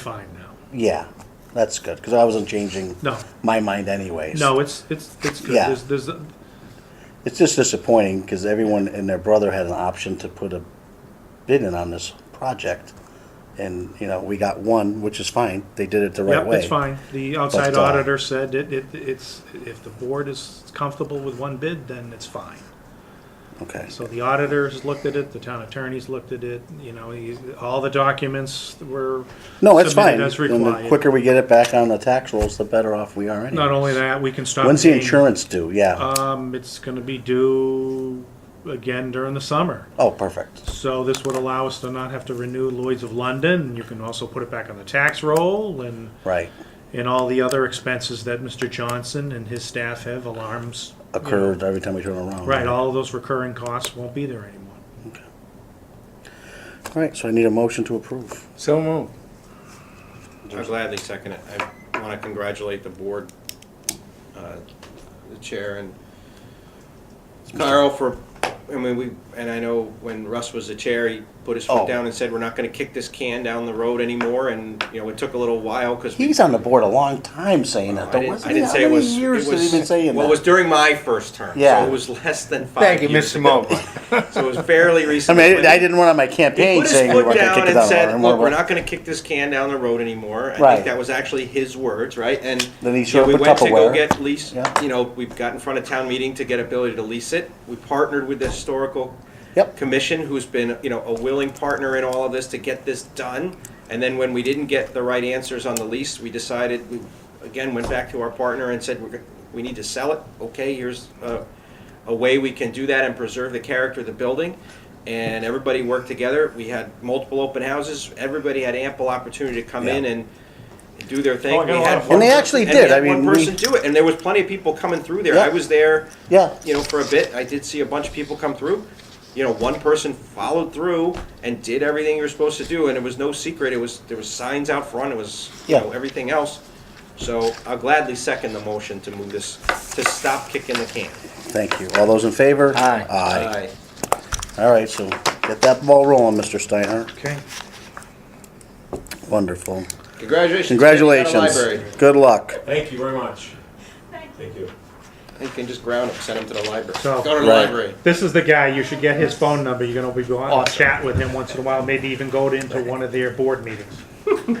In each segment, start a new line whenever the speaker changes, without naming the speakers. fine now.
Yeah, that's good, because I wasn't changing
No.
my mind anyways.
No, it's, it's, it's good.
Yeah.
There's, there's,
It's just disappointing, because everyone and their brother had an option to put a bid in on this project. And, you know, we got one, which is fine, they did it the right
yep,
way.
it's fine. The outside
But, uh,
auditor said it, it, it's, if the board is comfortable with one bid, then it's fine.
Okay,
So the auditors looked at it, the town attorneys looked at it, you know, he- all the documents were
no, it's
submitted
fine, and
as
the
required.
quicker we get it back on the tax rolls, the better off we are
Not
anyway.
only that, we can stop.
When's the
paying-
insurance due? Yeah,
Um, it's gonna be due again during the summer.
oh, perfect,
So this would allow us to not have to renew Lloyd's of London. You can also put it back on the tax roll and,
right,
and all the other expenses that Mr. Johnson and his staff have, alarms. you know.
occurred every time we turn around.
Right, all of those recurring costs won't be there anymore.
All right, so I need a motion to approve.
So moved.
I gladly second it. I want to congratulate the board, uh, the chair, and Carl for, I mean, we, and I know when Russ was the chair, he put his
Oh.
foot down and said, we're not going to kick this can down the road anymore, and, you know, it took a little while because.
He's on the board a long time saying that,
I
though.
didn't,
Wasn't
I
he-
didn't
how
say it
many
was. it
years has
was-
he been saying
Well,
that?
it was during my first term.
Yeah.
So it was less than five
Thank you,
years
Mr.
ago.
Mobley.
So it was fairly
I
recent.
mean,
when
I, I
he-
didn't want on my
He
campaign
put his
saying we
foot
weren't going to
down
kick it
and
out
said,
anymore.
look, we're not gonna kick this can down the road anymore. I
Right.
think that was actually his words, right? And.
Then he
you
showed
know,
up
we
with
went to go
Tupperware.
Get lease,
Yeah.
you know, we've got in front of town meeting to get ability to lease it. We partnered with the historical.
Yep.
Commission, who's been, you know, a willing partner in all of this to get this done. And then when we didn't get the right answers on the lease, we decided, we again went back to our partner and said, we're, go- we need to sell it. Okay, here's uh, a, a way we can do that and preserve the character of the building. And everybody worked together. We had multiple open houses. Everybody had ample opportunity to come in
Yeah.
and do their thing.
Oh, I
We
got a lot
had
of
one
And they
person-
actually
and
did.
we had
I mean,
One
we-
person do it, and there was plenty of people coming through there.
Yeah.
I was there
Yeah.
you know, for a bit. I did see a bunch of people come through. You know, one person followed through and did everything you were supposed to do, and it was no secret. It was there was signs out front. It was you
Yeah.
know everything else. So I'll gladly second the motion to move this to stop kicking the can.
Thank you. All those in favor?
Aye.
Aye. All right, so get that ball rolling, Mr. Steiner.
Okay.
Wonderful.
Congratulations.
Congratulations. Good luck.
Thank you very much.
Thank you.
you.
You can just ground him, send him to the library.
So-
Go to the
Right.
library.
This is the guy, you should get his phone number, you're gonna be going to chat with him once in a while, maybe even go to- into one of their board meetings.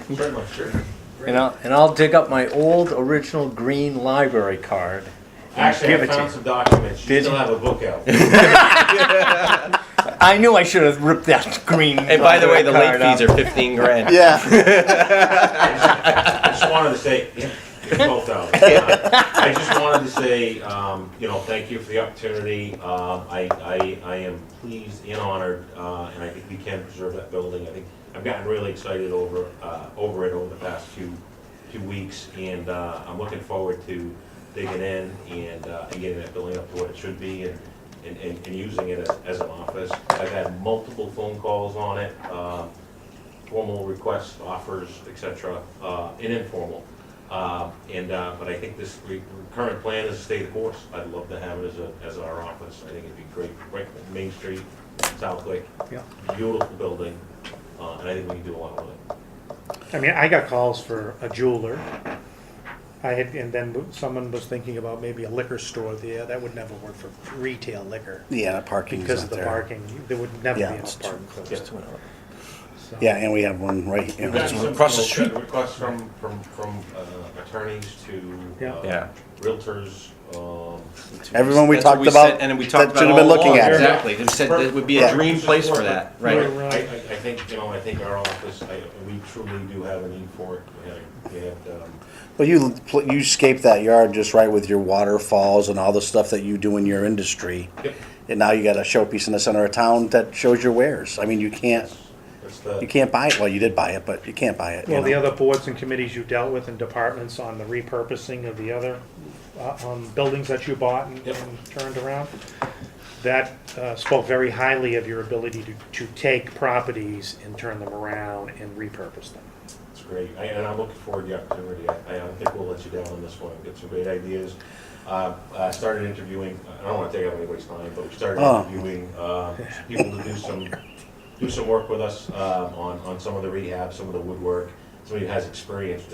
Very much, sure.
And I'll, and I'll dig up my old original green library card.
Actually,
Give
I
it to
found
you.
some documents. You
Did
still
you?
have a book out.
I knew I should have ripped that green.
And by the way, the late
library card
fees are fifteen grand.
Yeah.
I just wanted to say, twelve dollars. I just wanted to say, um, you know, thank you for the opportunity. Um, I, I, I am pleased and honored, uh, and I think we can preserve that building. I think, I've gotten really excited over, uh, over it over the past few, few weeks, and, uh, I'm looking forward to digging in and, uh, and getting that building up to what it should be and, and, and and using it as, as an office. I've had multiple phone calls on it, um, formal requests, offers, et cetera, uh, and informal. Uh, And, uh, but I think this re- current plan is to stay the course. I'd love to have it as a, as our office. I think it'd be great, right, on Main Street, South Lake.
Yeah.
Beautiful building, uh, and I think we can do a lot with it.
I mean, I got calls for a jeweler. I had, and then someone was thinking about maybe a liquor store there, that would never work for retail liquor.
Yeah, the parking's
Because
not
of the
there.
parking, there would never be
Yeah,
enough
it's
parking.
Just went up.
So-
Yeah, and we have one right
We've
here.
gotten some,
across the
you know, Requests from, from, from uh, attorneys to
Yeah.
uh,
Yeah.
realtors, um,
Everyone we
That's what
talked
said,
about
And we
that
talked about
should have
all
been looking
along.
at it.
Exactly. They said that it would be a
Yeah.
dream place for that, right?
I, I, I think, you know, I think our office, I, we truly do have a need for it. We had, we had, um,
Well, you pl- you scape that yard just right with your waterfalls and all the stuff that you do in your industry,
Yep.
and now you got a showpiece in the center of town that shows your wares. I mean, you can't
That's the,
you can't buy it. Well, you did buy it, but you can't buy it. you
Well, the
know?
other boards and committees you dealt with and departments on the repurposing of the other, uh, um, buildings that you bought and
Yep.
and turned around, that, uh, spoke very highly of your ability to, to take properties and turn them around and repurpose them.
it's great, I- and I'm looking forward to the opportunity. I, I don't think we'll let you down on this one, we've got some great ideas. Uh, I started interviewing, I don't wanna take up anybody's time, but we started
Oh.
interviewing, uh, um, people to do some, do some work with us, uh, on, on some of the rehab, some of the woodwork. somebody who has experience